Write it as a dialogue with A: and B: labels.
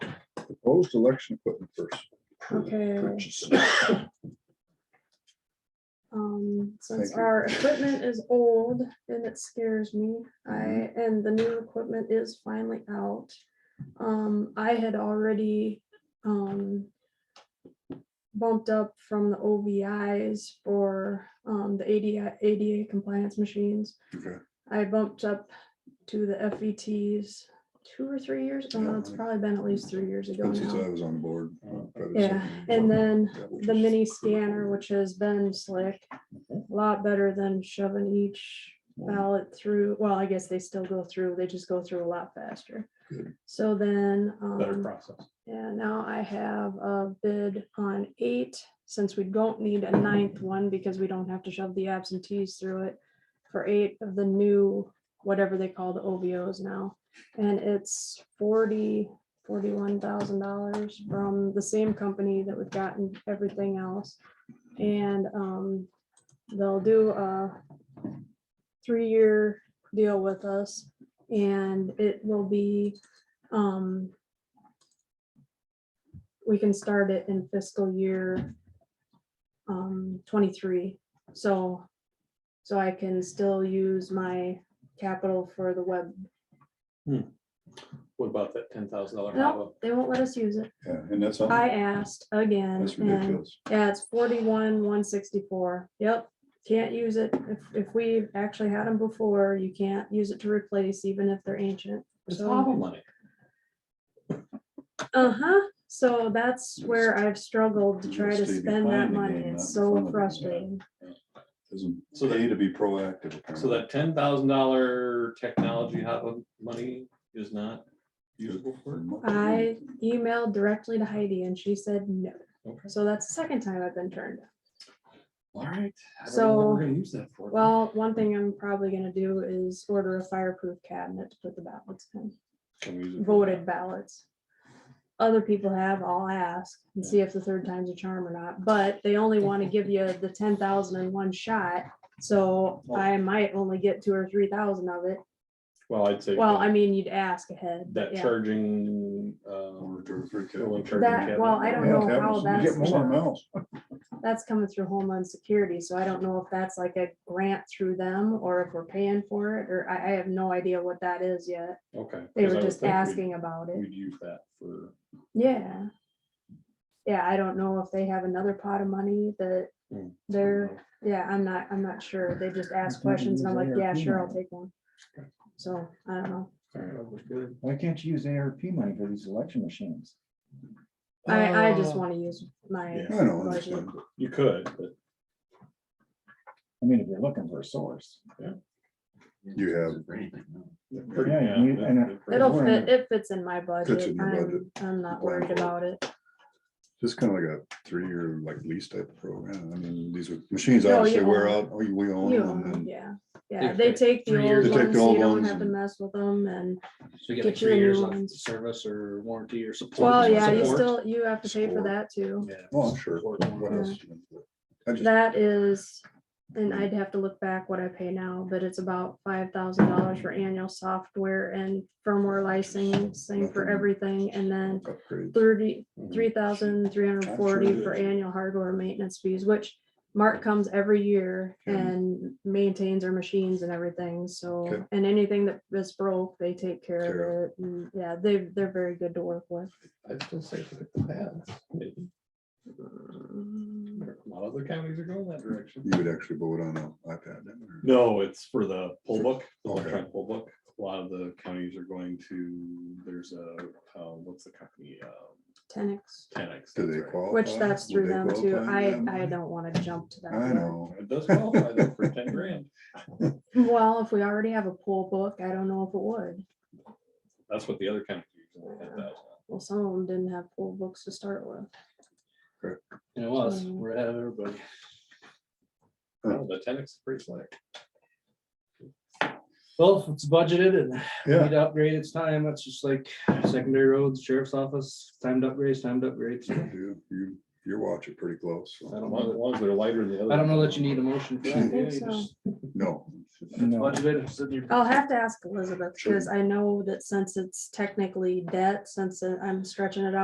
A: post-election equipment first.
B: Okay.
A: Purchase.
B: Um, since
A: Thank you.
B: our equipment is old and it scares me, I,
A: Mm-hmm.
B: and the new equipment is finally out. Um, I had already, um. Bumped up from the OVIs for, um, the ADA, ADA compliance machines.
A: Okay.
B: I bumped up to the FETs two or three years, oh, it's
A: Yeah.
B: probably been at least three years ago
A: But since I
B: now.
A: was on board. uh, probably
B: Yeah,
A: something-
B: and then
A: That was
B: the
A: just-
B: mini scanner, which has been slick, a lot better than shoving each ballot through. Well, I guess they still go through, they just go through a lot faster.
A: Good.
B: So then,
C: better
B: um,
C: process.
B: yeah, now I have a bid on eight, since we don't need a ninth one because we don't have to shove the absentees through it for eight of the new, whatever they call the OVOs now. And it's forty, forty-one thousand dollars from the same company that we've gotten everything else. And um, they'll do a three-year deal with us and it will be um, we can start it in fiscal year um, twenty-three, so, so I can still use my capital for the web.
C: What about that ten thousand dollar
B: No,
C: Nava?
B: they won't let us use it.
A: Yeah, and that's,
B: I
A: on-
B: asked again,
A: that's
B: and,
A: ridiculous.
B: yeah, it's forty-one, one sixty-four, yep, can't use it. If, if we actually had them before, you can't use it to replace, even if they're ancient.
C: It's
B: So-
C: Nava money.
B: Uh-huh, so that's where I've struggled to
A: It's
B: try to
A: the
B: spend that
A: declining
B: money,
A: game,
B: it's
A: not the fun of
B: so
A: it, yeah.
B: frustrating.
A: Doesn't
C: So that-
A: pay to be proactive.
C: So that ten thousand dollar technology Nava money is not usable for. it?
B: I emailed directly to Heidi and she said no.
C: Okay.
B: So that's the second time I've been turned. down.
C: All right. I don't know what
B: So-
C: We're gonna use that for.
B: Well, one thing I'm probably gonna do is order a fireproof cabinet to put the ballots in,
C: Can we use it for
B: voted
C: that?
B: ballots. Other people have, I'll ask and see if the third time's a charm or not, but they only wanna give you the ten thousand in one shot. So I might only get two or three thousand of it.
C: Well, I'd say.
B: Well,
C: that-
B: I mean, you'd ask ahead. but
C: That
B: yeah.
C: charging, um,
A: Over two or three
C: the one
A: kids.
C: charging
B: That-
C: cabinet.
B: well, I don't
A: Yeah,
B: know
A: that
B: how
A: was-
B: that's
A: You get more
B: not-
A: miles.
B: that's coming through Homeland Security, so I don't know if that's like a grant through them or if we're paying for it, or I, I have no idea what that is yet.
C: Okay.
B: They
C: 'cause I
B: were
C: would
B: just
C: think we'd-
B: asking about it.
C: We'd use that for,
B: Yeah. Yeah, I don't know if they have another pot of money that
C: Hmm.
B: they're, yeah, I'm not, I'm not sure. They just ask questions and I'm like, yeah, sure, I'll take one. So, I don't know.
D: Why can't you use ARP money for these election machines?
B: I, I
A: Oh.
B: just
C: Uh,
B: want to use my,
A: I don't understand.
C: You could, but
D: I mean, if you're looking for a source.
A: You have,
C: they're pretty-
D: Yeah,
C: yeah,
D: you-
C: they're-
D: and a-
C: they're pretty-
B: it'll
D: We're in
B: fit, it fits in my budget.
A: in your budget.
B: I'm, I'm not worried
A: Blindfold.
B: about it.
A: just kind of like a three-year like lease type of program. I mean, these are- machines
B: No, you
A: obviously wear
B: own
A: out. Oh, you- we own
B: You
A: them
B: own 'em,
A: and
B: yeah, yeah,
E: They-
B: they
E: they-
B: take the
E: three
B: old
E: years
A: They take the
B: ones, so
A: old
B: you don't
A: ones
B: have to
A: and-
B: mess with them and,
E: So we get like
B: Get you a
E: three years
B: new
E: off
B: one.
E: the service or warranty or support.
B: well, yeah, you
E: Support.
B: still, you have to pay for
A: Support.
B: that too.
E: Yeah.
A: Oh, I'm sure.
E: Support.
A: What else? I just,
B: That is, and I'd have to look back what I pay now, but it's about five thousand dollars for annual software and firmware licensing for
A: Nothing.
B: everything, and then
A: upgrade.
B: thirty,
C: Mhm.
B: three thousand three hundred forty
A: Absolutely.
B: for annual hardware maintenance fees, which Mark comes every year
A: Okay.
B: and maintains our machines and everything, so,
A: Okay.
B: and anything that is broke, they take
A: Care
B: care of it. And yeah, they, they're very good to work with.
C: I'd still say pick the pads. maybe.
B: Mm,
C: A lot of other counties are going that direction.
A: You would actually vote on an iPad. then, or-
C: No, it's for the poll book, the
A: Okay.
C: electronic poll book. A lot of the counties are going to, there's a, uh, what's the company? Um,
B: 10X,
C: Tenex.
A: Do
C: that's
A: they
C: right.
A: qualify?
B: which that's
A: Would
B: through
A: they
B: them too.
A: qualify?
B: I,
A: Yeah.
B: I don't want to jump to that.
A: I
B: yet.
A: know.
C: It does qualify though for ten grand.
B: Well, if we already have a pool book, I don't know if it would.
C: That's what the other counties are using. 10,000.
B: Well, some of them didn't have pool books to start with.
E: It was, we're ahead of everybody.
C: Oh, The Tenex is pretty slick.
E: Well, if it's budgeted and
A: Yeah.
E: need to upgrade, it's time. That's just like secondary roads, sheriff's office, time to upgrade, time to upgrade.
A: Yeah, You, you, you're watching pretty close. so-
E: I
C: As
E: don't
C: long as
E: know,
C: long as they're lighter than the other.
E: I don't know that you
C: ones.
E: need a motion for
B: I
E: that.
B: think
E: yeah, you
B: so.
E: just-
A: No,
E: It's
D: No.
E: budgeted. it's in your-
B: I'll have to ask Elizabeth,
A: Sure.
B: because I know that since it's technically debt, since I'm stretching it out.